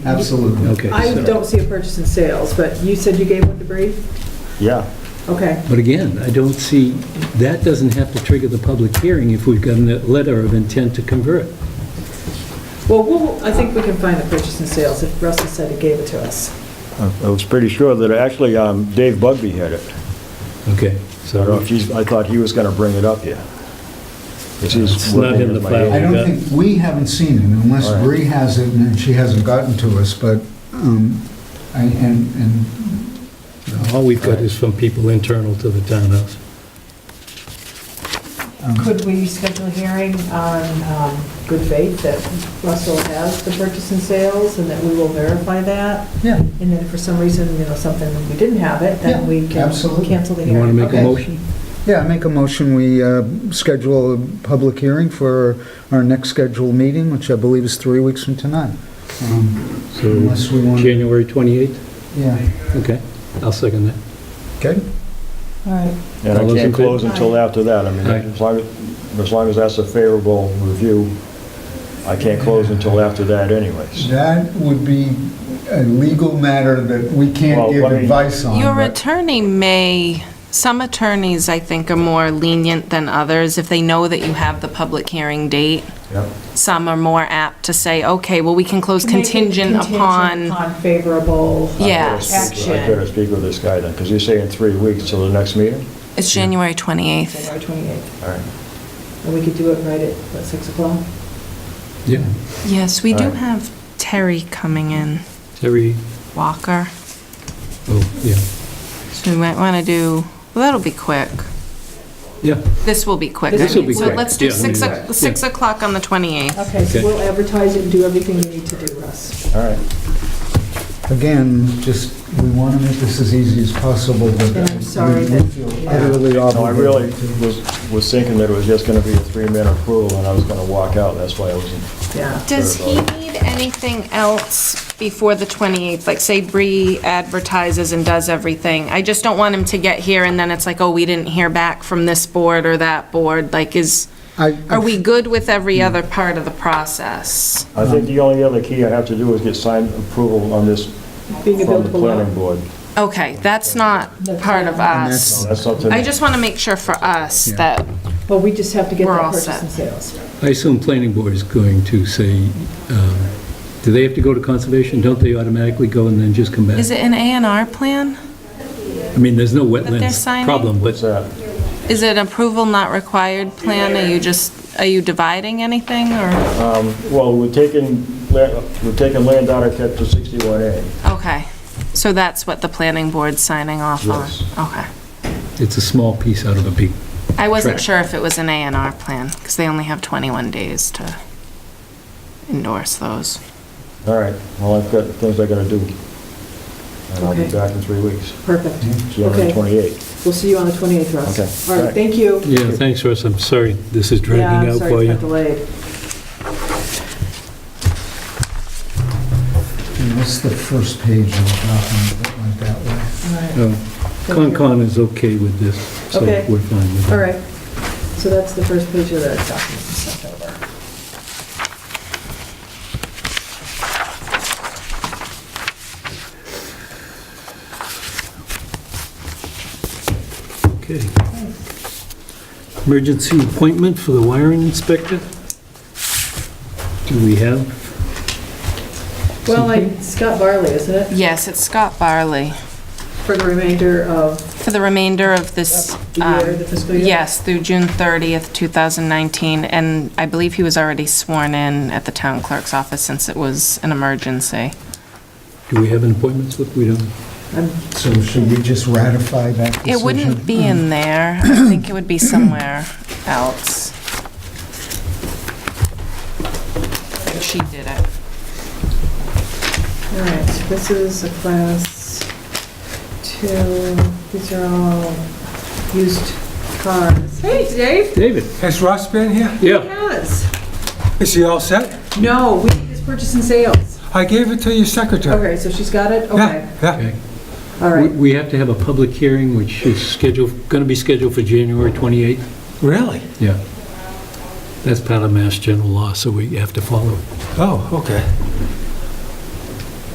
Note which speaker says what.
Speaker 1: Absolutely.
Speaker 2: Okay.
Speaker 3: I
Speaker 2: so-
Speaker 3: don't see a purchase and sales, but you said you gave up the brief?
Speaker 4: Yeah.
Speaker 3: Okay,
Speaker 2: But again, I don't see, that doesn't have to trigger the public hearing if we've got a letter of intent to convert.
Speaker 3: well, we'll, I think we can find the purchase and sales if Russell said he gave it to us.
Speaker 4: I I was pretty sure that, actually, um, Dave Bugby had it.
Speaker 2: Okay,
Speaker 4: I don't know
Speaker 2: so
Speaker 4: if he's, I thought he was going to bring it up here.
Speaker 2: It's not in the file.
Speaker 1: I don't think, we haven't seen it unless
Speaker 4: All right.
Speaker 1: Bree has it and she hasn't gotten to us, but, um, I- and, and
Speaker 2: all we've got is from people internal to the townhouse.
Speaker 1: um,
Speaker 3: Could we schedule a hearing on um, good faith that Russell has the purchase and sales and that we will verify that?
Speaker 1: Yeah.
Speaker 3: And then if for some reason, you know, something, we didn't have it, then
Speaker 1: Yeah,
Speaker 3: we can
Speaker 1: absolutely.
Speaker 3: cancel the
Speaker 2: You want to
Speaker 3: hearing.
Speaker 2: make a
Speaker 1: Okay.
Speaker 2: motion?
Speaker 1: Yeah, I make a motion, we uh, schedule a public hearing for our next scheduled meeting, which I believe is three weeks from tonight. Um,
Speaker 2: So
Speaker 1: Unless we want,
Speaker 2: January 28th?
Speaker 1: yeah,
Speaker 2: Okay, I'll second that.
Speaker 1: okay?
Speaker 3: All right,
Speaker 4: And
Speaker 2: All
Speaker 4: I
Speaker 2: those in
Speaker 4: can't
Speaker 2: favor?
Speaker 4: close until after that. I mean,
Speaker 2: Aye.
Speaker 4: as long, as- as long as that's a favorable review, I can't close until after that anyways.
Speaker 1: That would be a legal matter that we can't
Speaker 4: Well,
Speaker 1: give
Speaker 4: I mean-
Speaker 1: advice on.
Speaker 5: Your
Speaker 1: but-
Speaker 5: attorney may, some attorneys, I think, are more lenient than others if they know that you have the public hearing date.
Speaker 4: Yep.
Speaker 5: Some are more apt to say, okay, well, we can close
Speaker 3: Make it
Speaker 5: contingent
Speaker 3: Contingent
Speaker 5: upon,
Speaker 3: upon favorable,
Speaker 4: I better
Speaker 5: Yes.
Speaker 4: speak- I better speak with this guy then, because you say in three weeks till the next meeting?
Speaker 5: it's January 28th.
Speaker 3: January 28th,
Speaker 4: All right.
Speaker 3: and we could do it right at, what, 6 o'clock?
Speaker 2: Yeah,
Speaker 5: Yes, we do
Speaker 4: Alright.
Speaker 5: have Terry coming in,
Speaker 2: Terry,
Speaker 5: Walker,
Speaker 2: oh, yeah,
Speaker 5: so we might want to do, well, that'll be quick.
Speaker 2: yeah,
Speaker 5: This will be quick. I
Speaker 3: This will
Speaker 5: mean,
Speaker 3: be
Speaker 5: So
Speaker 3: quick,
Speaker 5: let's do
Speaker 2: yeah, I mean,
Speaker 5: 6
Speaker 2: yeah.
Speaker 5: o- six o'clock on the 28th.
Speaker 3: Okay, so
Speaker 2: Okay.
Speaker 3: we'll advertise it and do everything we need to do, Russ.
Speaker 4: All right.
Speaker 1: Again, just, we want to make this as easy as possible, but.
Speaker 3: And I'm
Speaker 1: we-
Speaker 3: sorry
Speaker 1: we
Speaker 3: that-
Speaker 1: feel
Speaker 3: yeah.
Speaker 1: Utterly
Speaker 4: No, I really
Speaker 1: obligated.
Speaker 4: was, was thinking that it was just going to be a three-minute approval and I was going to walk out. That's why I wasn't
Speaker 3: Yeah.
Speaker 5: Does he need anything else before the 28th? Like, say Bree advertises and does everything. I just don't want him to get here and then it's like, oh, we didn't hear back from this board or that board. Like, is,
Speaker 1: I- I-
Speaker 5: are we good with every other part of the process?
Speaker 4: I think the only other key I have to do is get signed approval on this
Speaker 3: Being a
Speaker 4: from the
Speaker 3: buildable lot.
Speaker 4: planning board.
Speaker 5: Okay, that's not part of us.
Speaker 4: That's up to
Speaker 5: I
Speaker 4: me.
Speaker 5: just want to make sure for us that,
Speaker 3: Well, we just have to get
Speaker 5: We're
Speaker 3: that
Speaker 5: all
Speaker 3: purchase
Speaker 5: set.
Speaker 3: and sales.
Speaker 2: I assume planning board is going to say, um, do they have to go to conservation? Don't they automatically go and then just come back?
Speaker 5: is it an A and R plan?
Speaker 2: I mean, there's no
Speaker 5: they're
Speaker 2: wetlands
Speaker 5: signing?
Speaker 2: problem, but
Speaker 4: What's that?
Speaker 5: Is it an approval not required plan? Are you just, are you dividing anything or?
Speaker 4: Well, we're taking, la- we're taking land out of chapter 61A.
Speaker 5: Okay, so that's what the planning board's signing off on?
Speaker 4: Yes.
Speaker 5: Okay.
Speaker 2: it's a small piece out of a big
Speaker 5: I wasn't
Speaker 2: Correct.
Speaker 5: sure if it was an A and R plan, because they only have 21 days to endorse those.
Speaker 4: All right, well, I've got things I gotta do. And I'll be
Speaker 3: Okay.
Speaker 4: back in three weeks,
Speaker 3: Perfect.
Speaker 4: January
Speaker 3: Okay.
Speaker 4: 28th.
Speaker 3: We'll see you on the 28th, Russ.
Speaker 4: Okay.
Speaker 3: All right, thank you.
Speaker 2: Yeah, thanks, Russ. I'm sorry this is dragging out for
Speaker 3: Yeah,
Speaker 2: you.
Speaker 3: I'm sorry it's been delayed.
Speaker 1: And What's the first page of the document that went that way?
Speaker 3: All right.
Speaker 2: Uh,
Speaker 3: Thank you.
Speaker 2: Concon is okay with this, so
Speaker 3: Okay.
Speaker 2: we're fine with it.
Speaker 3: All right, so that's the first page of the document we sent over.
Speaker 2: Okay. Emergency appointment for the wiring inspector? Do we have?
Speaker 3: Well, like Scott Barley, isn't it,
Speaker 5: Yes, it's Scott Barley.
Speaker 3: for the remainder of
Speaker 5: For the remainder of this...
Speaker 3: the
Speaker 5: um,
Speaker 3: year, the fiscal year?
Speaker 5: Yes, through June 30th, 2019, and I believe he was already sworn in at the town clerk's office since it was an emergency.
Speaker 2: Do we have an appointment slip? We don't.
Speaker 3: I'm-
Speaker 1: So should we just ratify that decision?
Speaker 5: It wouldn't be in there. I think it would be somewhere else. She did it.
Speaker 3: All right, so this is a class two, these are all used cars. Hey, Dave.
Speaker 2: David?
Speaker 6: Has Ross been here?
Speaker 2: Yeah.
Speaker 3: Yes.
Speaker 6: Is he all set?
Speaker 3: No, we need this purchase and sales.
Speaker 6: I gave it to your secretary.
Speaker 3: Okay, so she's got it? Okay,
Speaker 6: Yeah, yeah.
Speaker 2: Okay.
Speaker 3: all
Speaker 2: We
Speaker 3: right.
Speaker 2: we have to have a public hearing, which is scheduled, going to be scheduled for January 28th?
Speaker 6: Really?
Speaker 2: Yeah. That's part of Mass General Law, so we have to follow it.
Speaker 6: Oh, okay.